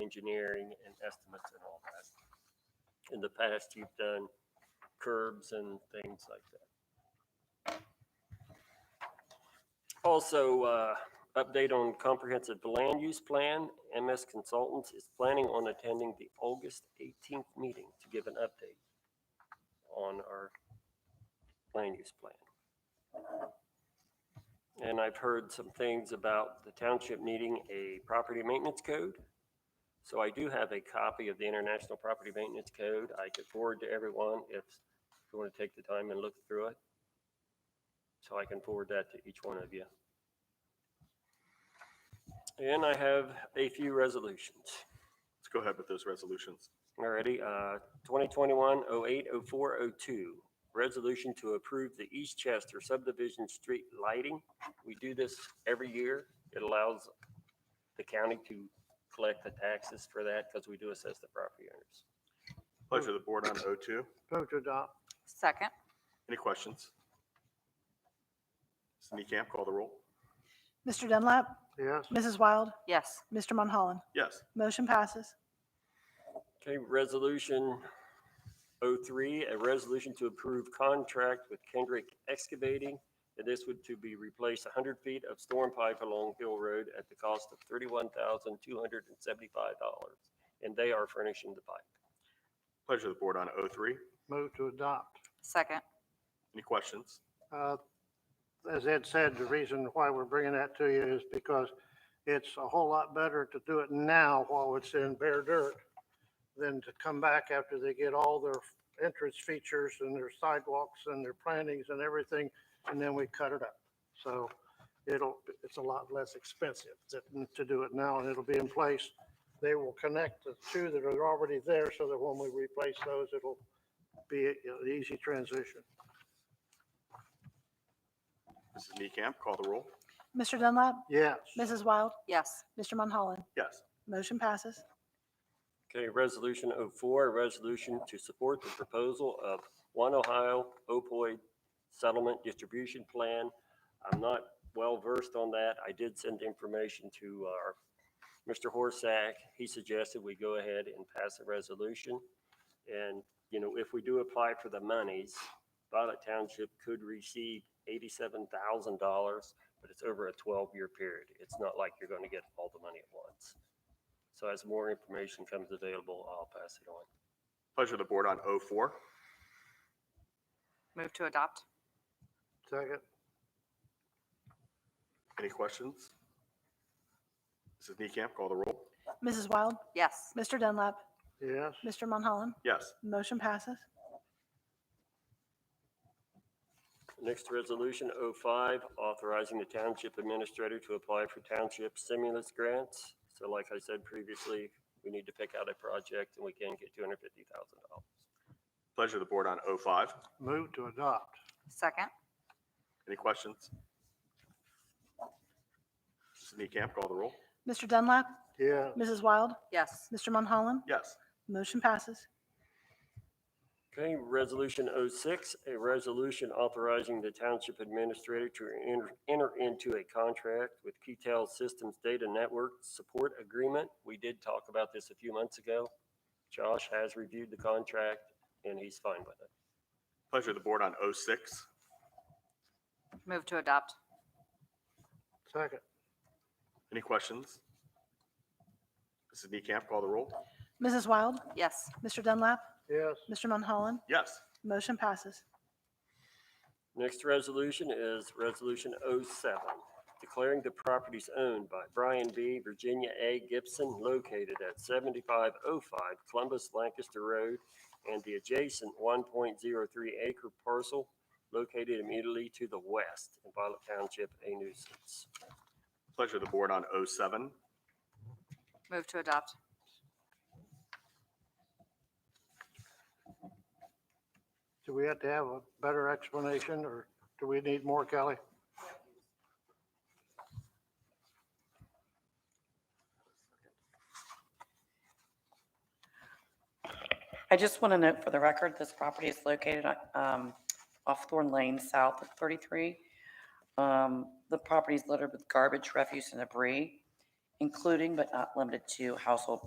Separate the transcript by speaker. Speaker 1: engineering and estimates and all that. In the past, you've done curbs and things like that. Also, uh, update on comprehensive land use plan. MS Consultants is planning on attending the August 18th meeting to give an update on our land use plan. And I've heard some things about the township needing a property maintenance code. So I do have a copy of the International Property Maintenance Code. I could forward to everyone if you want to take the time and look through it. So I can forward that to each one of you. And I have a few resolutions.
Speaker 2: Let's go ahead with those resolutions.
Speaker 1: Alrighty, uh, 2021-08-0402, resolution to approve the East Chester subdivision street lighting. We do this every year. It allows the county to collect the taxes for that because we do assess the property owners.
Speaker 2: Pleasure of the board on O2.
Speaker 3: Vote to adopt.
Speaker 4: Second,
Speaker 2: Any questions? Ms. Camp, call the roll.
Speaker 5: Mr. Dunlap,
Speaker 3: Yes.
Speaker 5: Mrs. Wild,
Speaker 4: yes.
Speaker 5: Mr. Monholland.
Speaker 2: Yes.
Speaker 5: Motion passes.
Speaker 1: Okay, resolution 03, a resolution to approve contract with Kendrick Excavating. And this would to be replace 100 feet of storm pipe along Hill Road at the cost of $31,275. And they are furnishing the pipe.
Speaker 2: Pleasure of the board on O3.
Speaker 3: Move to adopt.
Speaker 4: Second,
Speaker 2: Any questions?
Speaker 3: Uh, As Ed said, the reason why we're bringing that to you is because it's a whole lot better to do it now while it's in bare dirt than to come back after they get all their entrance features and their sidewalks and their plantings and everything, and then we cut it up. So it'll, it's a lot less expensive to- to do it now, and it'll be in place. They will connect the two that are already there so that when we replace those, it'll be a- an easy transition.
Speaker 2: Mrs. Camp, call the roll.
Speaker 5: Mr. Dunlap,
Speaker 3: Yes.
Speaker 5: Mrs. Wild,
Speaker 4: yes.
Speaker 5: Mr. Monholland.
Speaker 2: Yes.
Speaker 5: Motion passes.
Speaker 1: Okay, resolution 04, a resolution to support the proposal of One Ohio opioid settlement distribution plan. I'm not well versed on that. I did send information to our, Mr. Horsack. He suggested we go ahead and pass a resolution. And, you know, if we do apply for the monies, Violet Township could receive $87,000, but it's over a 12-year period. It's not like you're going to get all the money at once. So as more information comes available, I'll pass it on.
Speaker 2: Pleasure of the board on O4.
Speaker 4: Move to adopt,
Speaker 3: Second.
Speaker 2: Any questions? Mrs. Camp, call the roll.
Speaker 5: Mrs. Wild,
Speaker 4: yes.
Speaker 5: Mr. Dunlap,
Speaker 3: Yes.
Speaker 5: Mr. Monholland.
Speaker 2: Yes.
Speaker 5: Motion passes.
Speaker 1: Next resolution, 05, authorizing the township administrator to apply for township stimulus grants. So like I said previously, we need to pick out a project and we can get $250,000.
Speaker 2: Pleasure of the board on O5.
Speaker 3: Move to adopt.
Speaker 4: Second,
Speaker 2: Any questions? Mrs. Camp, call the roll.
Speaker 5: Mr. Dunlap,
Speaker 3: Yeah.
Speaker 5: Mrs. Wild,
Speaker 4: yes.
Speaker 5: Mr. Monholland.
Speaker 2: Yes.
Speaker 5: Motion passes.
Speaker 1: Okay, resolution 06, a resolution authorizing the township administrator to enter- enter into a contract with Keytel Systems Data Network Support Agreement. We did talk about this a few months ago. Josh has reviewed the contract and he's fine with it.
Speaker 2: Pleasure of the board on O6.
Speaker 4: Move to adopt,
Speaker 3: Second.
Speaker 2: Any questions? Mrs. Camp, call the roll.
Speaker 5: Mrs. Wild,
Speaker 4: yes.
Speaker 5: Mr. Dunlap,
Speaker 3: Yes.
Speaker 5: Mr. Monholland.
Speaker 2: Yes.
Speaker 5: Motion passes.
Speaker 1: Next resolution is Resolution 07, declaring the properties owned by Brian B. Virginia A. Gibson located at 7505 Columbus Lancaster Road and the adjacent 1.03 acre parcel located immediately to the west in Violet Township a nuisance.
Speaker 2: Pleasure of the board on oh O7.
Speaker 4: Move to adopt,
Speaker 3: Do we have to have a better explanation or do we need more, Kelly?
Speaker 6: I just want to note for the record, this property is located um, off Thorn Lane, south of 33. Um, The property is littered with garbage, refuse, and debris, including but not limited to household